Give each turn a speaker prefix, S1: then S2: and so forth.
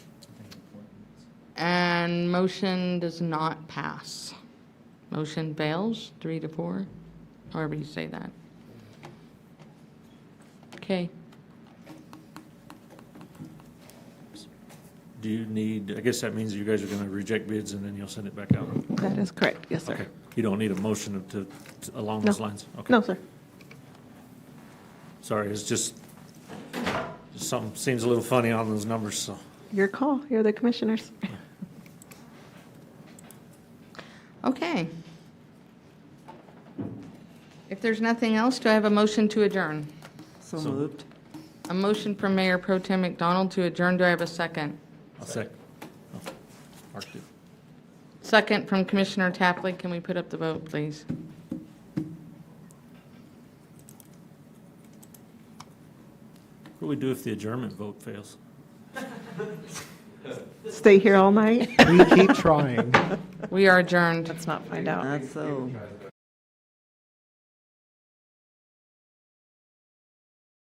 S1: And motion does not pass. Motion fails, three to four, however you say that. Okay,
S2: Do you need, I guess that means you guys are going to reject bids and then you'll send it back out?
S3: That is correct, yes,
S2: Okay.
S3: sir.
S2: You don't need a motion to, to- along those
S3: No.
S2: lines? Okay.
S3: No, sir.
S2: Sorry, it's just, something seems a little funny on those numbers, so.
S3: Your call, you're the commissioners.
S1: okay. If there's nothing else, do I have a motion to adjourn?
S4: So moved.
S1: A motion from Mayor Pro Tem McDonald to adjourn, do I have a second?
S2: I'll second. Oh, Mark did.
S1: Second from Commissioner Tapley, can we put up the vote, please?
S2: What do we do if the adjournment vote fails?
S3: Stay here all night?
S5: We keep trying.
S1: We are adjourned.
S3: Let's not find out.
S4: That's so.